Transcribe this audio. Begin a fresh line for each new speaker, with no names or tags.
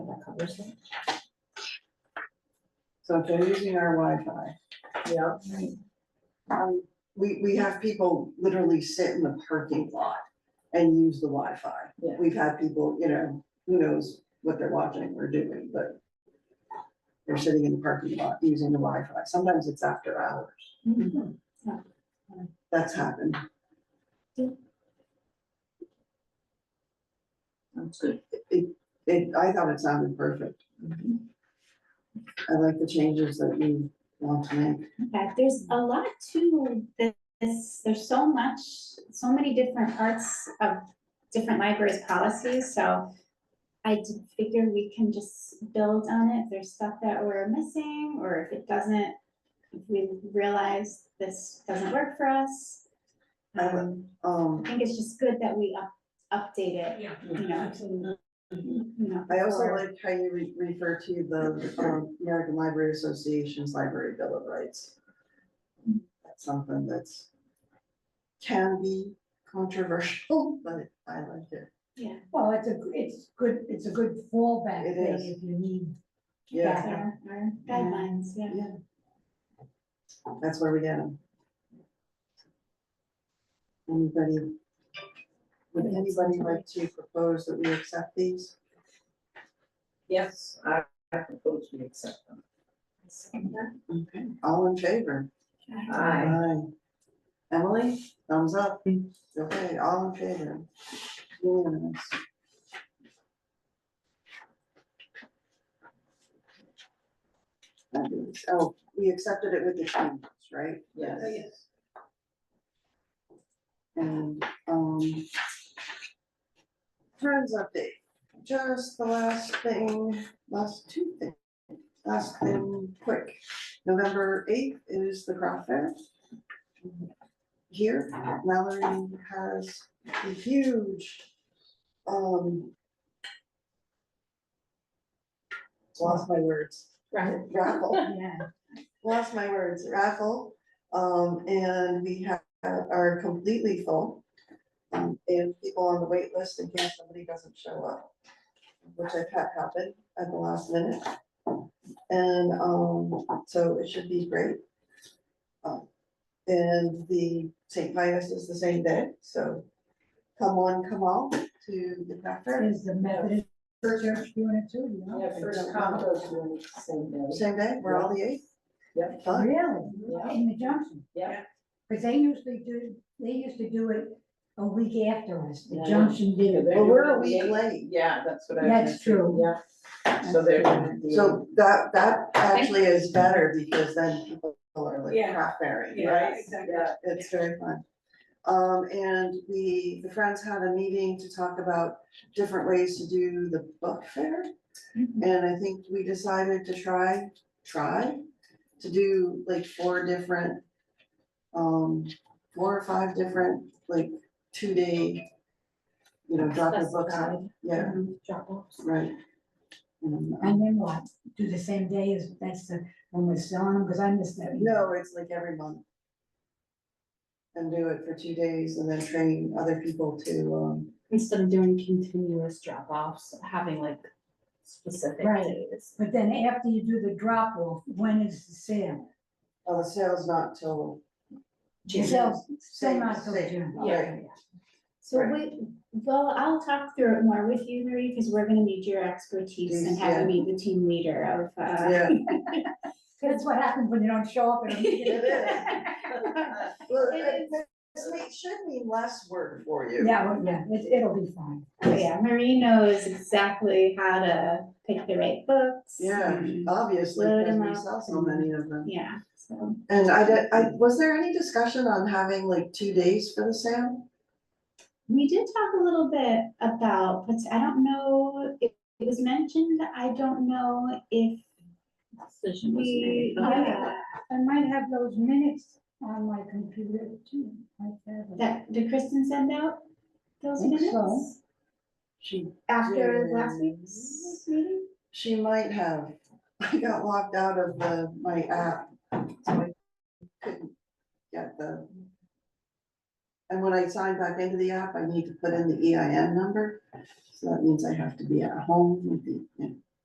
person?
So if they're using our Wi-Fi,
Yeah.
um, we, we have people literally sit in the parking lot and use the Wi-Fi.
Yeah.
We've had people, you know, who knows what they're watching or doing, but they're sitting in the parking lot using the Wi-Fi. Sometimes it's after hours.
Mm-hmm.
That's happened.
That's good.
It, it, I thought it sounded perfect.
Mm-hmm.
I like the changes that we want to make.
Yeah, there's a lot to this, there's so much, so many different parts of different libraries' policies, so I did figure we can just build on it, if there's stuff that we're missing, or if it doesn't, if we realize this doesn't work for us.
I like-
Um, I
Um,
think it's just good that we up, update it,
Yeah. Mm-hmm.
you know,
Absolutely.
you know.
I also
for-
like how you re- refer to the um, American Library Association's Library Bill of Rights. That's something that's can be controversial, but I like it.
Yeah.
Well, it's a, it's good, it's a good fallback
It
thing
is.
if you need.
Yeah,
Our our guidelines, yeah.
yeah. That's where we get them. Anybody, would anybody like to propose that we accept these?
Yes, I, I propose we accept them.
Okay. All in favor?
Aye.
Aye. Emily, thumbs up. Okay, all in favor? Unanimous. Fabulous. Oh, we accepted it with the changes, right?
Yes.
And, um. Friends update, just the last thing, last two things, last thing, quick. November eighth is the craft fair. Here, Mallory has a huge, um. Lost my words.
Raffle.
Raffle
Yeah.
lost my words, raffle, um, and we have, are completely full. Um, and people on the wait list in case somebody doesn't show up, which I've had happen at the last minute. And, um, so it should be great. Um, And the St. Vitus is the same day, so come on, come all to the craft fair,
Is the Methodist church doing it too, you know?
Yeah, first compost room, same day.
same day, we're all the eighth.
Yep.
Fun.
Really? In the Johnson?
Yeah.
Because they usually do, they used to do it a week after us, the
Yeah.
Johnson did it.
They're
Well, we're a
doing the
week
eighth.
late.
Yeah, that's what I.
That's true.
Yeah, so they're gonna do.
So that, that actually is better because then people are like
Yeah.
crap berry,
Yeah,
right?
exactly.
Yeah,
It's very fun. Um, and we, the Friends had a meeting to talk about different ways to do the book fair.
Mhm.
And I think we decided to try, try to do like four different, um, four or five different, like two-day, you know, drop the books off. Yeah,
Drop offs.
right. Um,
And then what? Do the same day as, that's the, when we're selling them, because I missed that.
No, it's like every month. And do it for two days and then train other people to, um,
instead of doing continuous drop offs, having like specific
Right.
days.
But then after you do the drop off, when is the sale?
oh, the sale's not till.
The
June.
sale, sale
Same,
not till
same,
June.
yeah.
Okay,
So
Right.
we, well, I'll talk through it more with you, Marie, because we're gonna need your expertise and have
Yeah.
you be the team leader of, uh,
Yeah,
That's what happens when you don't show up. at a meeting.
it is. Well, it-
is.
this may- should mean less work for you.
Yeah, well, yeah, it, it'll be fine.
yeah, Marie knows exactly how to pick the right books.
Yeah,
and-
obviously,
Load 'em
because we saw
up
so many of them.
Yeah, so,
And I, did- I, was there any discussion on having like two days for the sale?
we did talk a little bit about, but I don't know, if it was mentioned, I don't know if
Decision was
we,
made.
yeah,
I might have those minutes on my computer too. like that.
that, did Kristen send out those
Think so.
minutes
She,
after last week's meeting?
she might have. I got locked out of the, my app, so I couldn't get the. And when I sign back into the E app, I need to put in the EIN number, so that means I have to be at home with the,